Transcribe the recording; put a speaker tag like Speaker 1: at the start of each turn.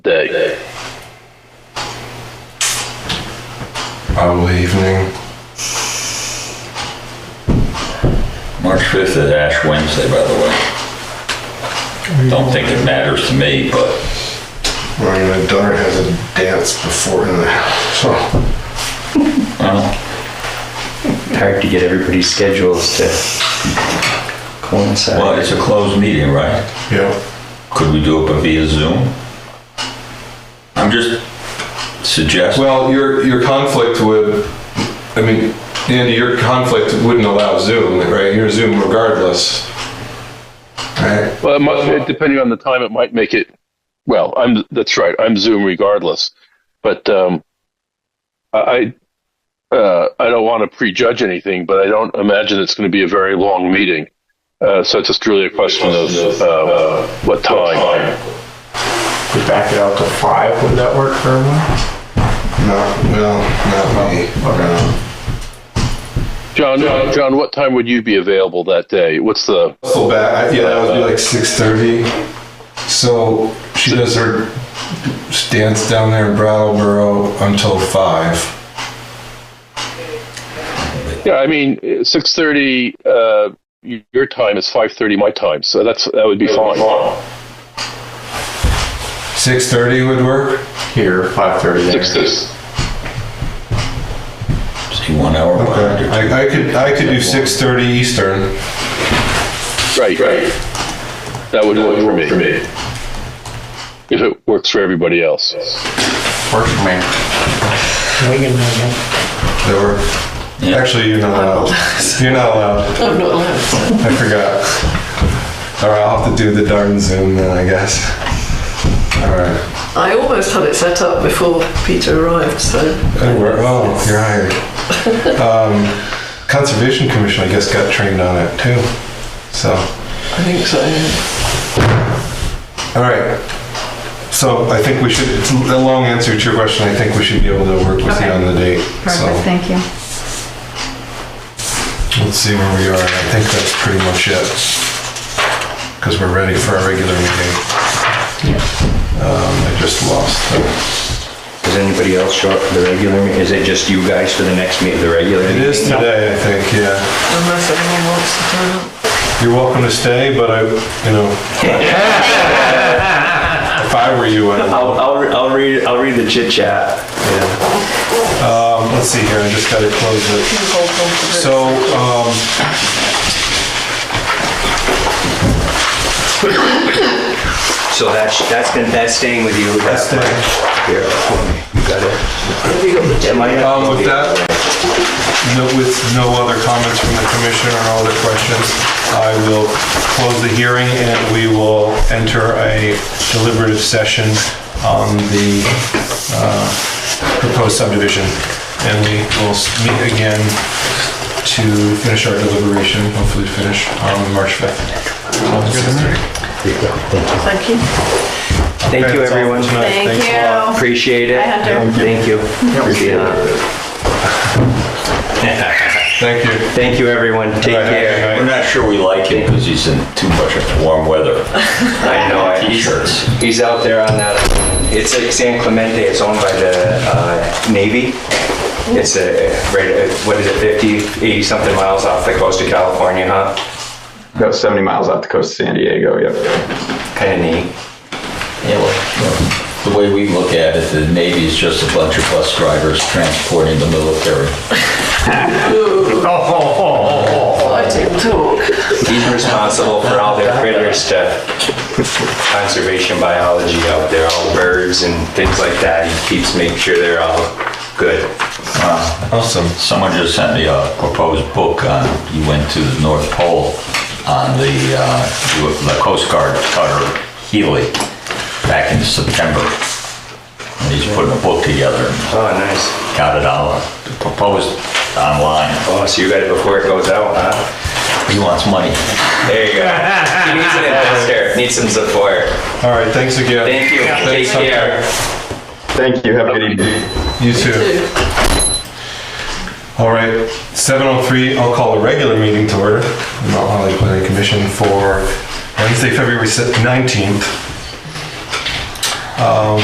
Speaker 1: probably evening.
Speaker 2: March 5th is Ash Wednesday, by the way. Don't think it matters to me, but
Speaker 1: Well, my daughter has a dance before in the house, so
Speaker 2: well,
Speaker 3: Hard to get everybody's schedules to coincide.
Speaker 2: well, it's a closed meeting, right?
Speaker 1: yeah.
Speaker 2: Could we do it via Zoom? I'm just suggesting,
Speaker 4: Well, your, your conflict would, I mean, Andy, your conflict wouldn't allow Zoom, right? You're Zoom regardless.
Speaker 1: I,
Speaker 5: Well, it might, depending on the time, it might make it. Well, I'm that's right. I'm Zoom regardless, but um, I I, uh, I don't want to prejudge anything, but I don't imagine it's going to be a very long meeting. Uh, so it's just really a question of uh, what time.
Speaker 6: We back it out to five, would that work for everyone?
Speaker 1: not, well, not me. Oh, Okay.
Speaker 5: John, John, what time would you be available that day? What's the
Speaker 1: Full back, yeah, that would be like six thirty. So she does her dance down there in Brattleboro until five.
Speaker 5: Yeah, I mean, six thirty. Uh, y- your time is five thirty my time, so that's that would be fine.
Speaker 1: Six thirty would work.
Speaker 6: Here, five thirty there.
Speaker 5: Six thirty.
Speaker 2: see, one hour behind or
Speaker 1: I, I could, I could do six thirty Eastern.
Speaker 5: Right, right. That would work for me. If it works for everybody else.
Speaker 6: Works for me.
Speaker 7: We can have
Speaker 1: That work?
Speaker 2: Yeah.
Speaker 1: Actually, you're not allowed. You're not allowed.
Speaker 7: I'm not allowed.
Speaker 1: I forgot. All right, I'll have to do the darn Zoom then, I guess. All right.
Speaker 7: I almost had it set up before Peter arrived, so
Speaker 1: That work- Oh, you're hired. Um, Conservation Commission, I guess, got trained on it too. So,
Speaker 7: I think so. yeah.
Speaker 1: all right. So I think we should, it's a long answer to your question. I think we should be able to work with you on the date.
Speaker 8: Perfect,
Speaker 1: So
Speaker 8: thank you.
Speaker 1: let's see where we are. I think that's pretty much it. Because we're ready for our regular meeting. Um, I just lost the.
Speaker 3: Does anybody else show up for the regular, me- is it just you guys for the next meet, the regular?
Speaker 1: It is today, I think, yeah.
Speaker 7: Unless anyone wants to turn up.
Speaker 1: You're welcome to stay, but I, you know. If I were you, I would.
Speaker 3: I'll, I'll, re- I'll read, I'll read the chit chat.
Speaker 1: Um, let's see here, I just gotta close it.
Speaker 7: Hold on to this.
Speaker 1: So, um.
Speaker 3: So that's, that's gonna, that's staying with you.
Speaker 1: That's staying.
Speaker 3: Here, you got it. Am I-
Speaker 1: Um, with that, no, with no other comments from the commission or no other questions, I will close the hearing and we will enter a deliberative session on the, uh, proposed subdivision. And we will s- meet again to finish our deliberation, hopefully finish on March 5th.
Speaker 8: Thank you.
Speaker 3: Thank you,
Speaker 1: Okay, that's all for
Speaker 3: everyone.
Speaker 1: tonight. Thanks a lot.
Speaker 8: Thank you.
Speaker 3: Appreciate it.
Speaker 8: Bye, Hunter.
Speaker 3: Thank you. Appreciate it.
Speaker 1: Thank you.
Speaker 3: Thank you, everyone. Take
Speaker 1: Bye, have a good
Speaker 3: care.
Speaker 1: night.
Speaker 2: We're not sure we like him because he's in too much warm weather.
Speaker 3: I know, I-
Speaker 2: T-shirts.
Speaker 3: he's out there on that, it's like San Clemente, it's owned by the uh, Navy. It's a, right, uh, what is it, 50, 80 something miles off the coast of California, huh?
Speaker 6: About seventy miles off the coast of San Diego, yep.
Speaker 3: Kind of neat.
Speaker 2: Yeah, well, The way we look at it, the Navy is just a bunch of bus drivers transporting the military.
Speaker 7: I didn't talk.
Speaker 3: He's responsible for all their critters to conservation biology out there, all the birds and things like that. He keeps making sure they're all good.
Speaker 2: Awesome. Someone just sent me a proposed book on, you went to the North Pole on the, uh, you- the Coast Guard cutter Healy back in September. And he's putting a book together and
Speaker 3: Oh, nice.
Speaker 2: got it on, proposed online.
Speaker 3: Oh, so you got it before it goes out, huh?
Speaker 2: He wants money.
Speaker 3: There you go. He needs an investor, needs some support.
Speaker 1: All right, thanks again.
Speaker 3: Thank you. Take
Speaker 1: Thanks,
Speaker 3: care.
Speaker 6: Thank you, have a good evening.
Speaker 1: You too.
Speaker 7: Two.
Speaker 1: All right, 7:03, I'll call a regular meeting to order, the Mount Holly Planning Commission for Wednesday, February 19th.